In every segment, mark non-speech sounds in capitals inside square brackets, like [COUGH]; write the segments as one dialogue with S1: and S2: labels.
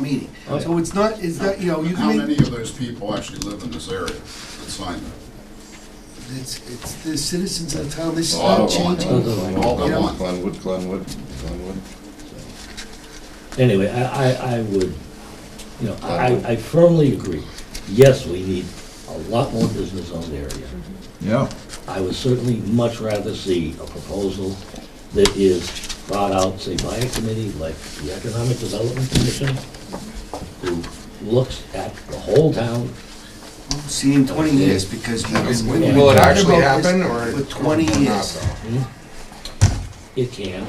S1: meeting. So it's not, it's not, you know, you
S2: How
S1: can
S2: many
S1: make,
S2: of those people actually live in this area that signed it?
S1: it's, it's the citizens of the town, this
S3: Oh,
S1: is
S2: All
S1: not
S2: of them.
S1: changing.
S2: All
S1: You
S2: of
S1: know-
S2: them.
S4: Glenwood, Glenwood, Glenwood.
S5: Anyway, I, I, I would, you know, I, I firmly agree. Yes, we need a lot more business zone area.
S4: Yeah.
S5: I would certainly much rather see a proposal that is brought out, say, by a committee like the Economic Development Commission, who looks at the whole town.
S1: See, in twenty years, because we've been. we've been
S6: Will it
S1: talking
S6: actually
S1: about this
S6: happen, or?
S1: For twenty
S6: or not,
S1: years,
S6: though?
S5: It can.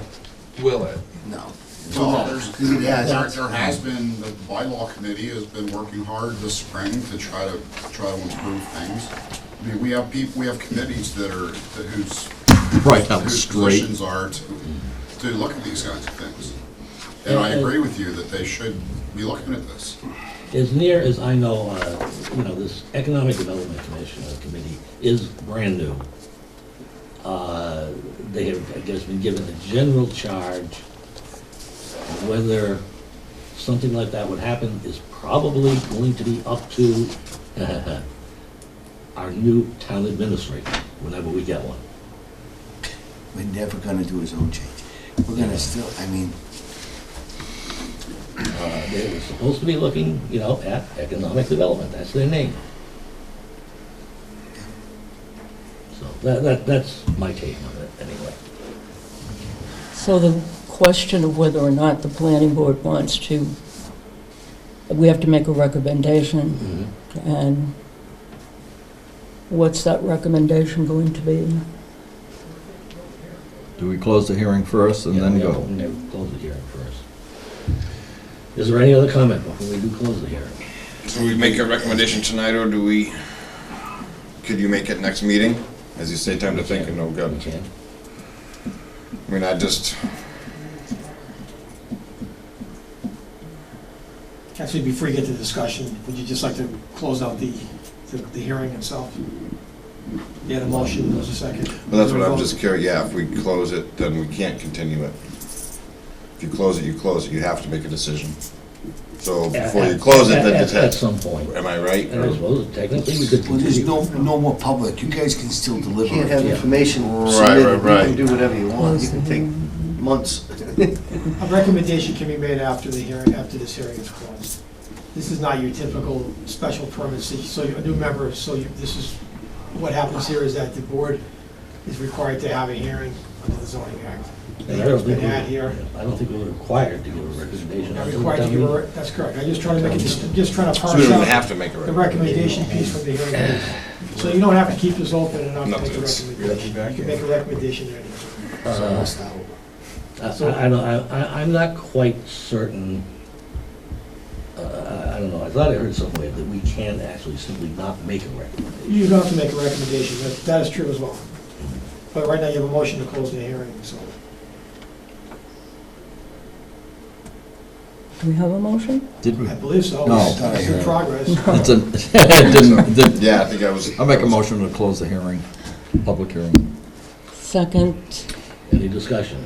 S6: Will it?
S1: no.
S2: Well, there's,
S1: It
S2: there,
S1: has.
S2: there has been, the bylaw committee has been working hard this spring to try to, try to improve things. I mean, we have people, we have committees that are, that whose,
S4: Right, that was
S2: whose
S4: straight.
S2: positions are to, to look at these kinds of things. And I
S5: And-
S2: agree with you that they should be looking at this.
S5: As near as I know, uh, you know, this Economic Development Commission uh, Committee is brand new. Uh, They have, I guess, been given a general charge. Whether something like that would happen is probably going to be up to [LAUGHS] our new town administrator, whenever we get one.
S1: We're never gonna do a zone change. We're gonna still, I mean,
S5: Uh, They were supposed to be looking, you know, at economic development, that's their name. So that, that, that's my take on it, anyway.
S7: So the question of whether or not the planning board wants to, we have to make a recommendation,
S3: Mm-hmm.
S7: and what's that recommendation going to be?
S4: Do we close the hearing first and
S5: Yeah,
S4: then
S5: we have
S4: go?
S5: to- we have to Close the hearing first. Is there any other comment before we do close the hearing?
S3: Do we make a recommendation tonight, or do we, could you make it next meeting? As you say, time to think and no
S5: We
S3: good.
S5: can.
S3: I mean, I just,
S8: Actually, before you get to discussion, would you just like to close out the, the the hearing itself? You had a motion, there was a second.
S3: well, that's what I'm just curious, yeah, if we close it, then we can't continue it. If you close it, you close it, you have to make a decision. So before you close it,
S5: At-
S3: then
S5: at-
S3: it's
S5: At
S3: it.
S5: some point.
S3: Am I right?
S5: And I suppose technically we could
S1: well, there's
S5: continue.
S1: no, no more public. You guys can still deliver.
S9: Can't have
S1: it.
S5: Yeah.
S9: information
S3: Right,
S9: submitted, you
S3: right, right.
S9: can do whatever you want, you
S7: Close
S9: can
S7: the
S9: take
S7: hearing.
S9: months.
S8: A recommendation can be made after the hearing, after this hearing is closed. This is not your typical special permit, so you- so you're a new member, so you, this is, what happens here is that the board is required to have a hearing under the zoning act.
S5: And I don't think
S8: Been had
S5: we-
S8: here.
S5: I don't think we're required to give a recommendation.
S8: Not required to give a, that's correct, I'm just trying to make it, just just trying to
S3: So
S8: parse
S3: we don't even
S8: out-
S3: have to make a
S8: the
S3: recommendation.
S8: recommendation piece from the hearing. board. So you don't have to keep this open and not
S3: Not
S8: make a
S3: that it's-
S8: recommendation. You can make a recommendation there. anyway.
S5: Uh, I- I, I don't, I, I- I'm not quite certain, uh, I, I don't know, I thought I heard somewhere that we can actually simply not make a recommendation.
S8: You don't have to make a recommendation, that, that is true as well. But right now you have a motion to close the hearing, so.
S7: Do we have a motion?
S4: Did we?
S8: I believe so.
S4: No.
S8: It's it's in
S4: [LAUGHS]
S8: progress.
S4: It's a, [LAUGHS] it didn't, didn't.
S3: Yeah, I think I was.
S4: I'll make a motion to close the hearing, public hearing.
S7: Second,
S5: Any discussion?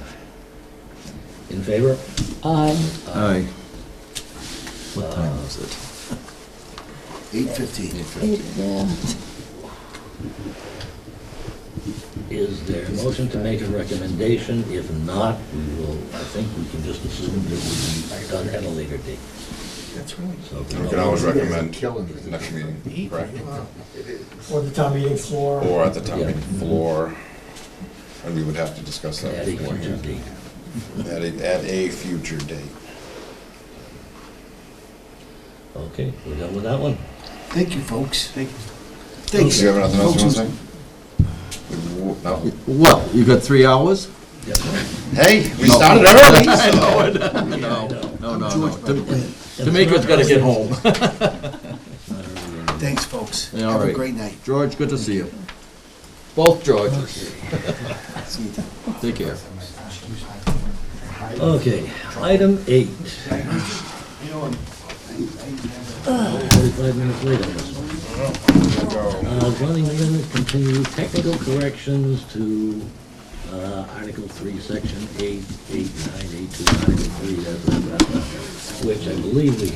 S5: In favor?
S7: aye.
S4: Aye. What
S5: Uh,
S4: time is it?
S1: Eight fifteen.
S7: Eight, yeah.
S5: Is there a motion to make a recommendation? If not, we will, I think we can just assume that we done at a later date.
S8: That's really.
S5: So if
S3: We
S5: no-
S3: can always recommend next meeting, correct?
S8: Or the town meeting floor.
S3: Or at the town meeting floor, and we would have to discuss that.
S5: At a future
S3: beforehand.
S5: date.
S3: At a, at a future date.
S5: Okay, we're done with that one?
S1: Thank you, folks. Thank you.
S3: Do
S1: Thanks.
S3: you have anything else you
S1: Folks,
S3: want to say? No.
S4: Well, you got three hours?
S5: Yep.
S3: Hey, we
S4: No.
S3: started early, so.
S4: No, no, no,
S1: George, by the way.
S4: D'Amico's gotta get home.
S1: Thanks, folks.
S4: Yeah, all
S1: Have a
S4: right.
S1: great night.
S4: George, good to see you. Both [LAUGHS] Georges. Take care.
S5: Okay, item eight. Forty-five minutes late on this one. Uh, Zoning amendment, continue technical corrections to uh, Article 3, Section 8, 8, 9, 8, 2, Article 3, blah, blah, blah, blah, which I believe we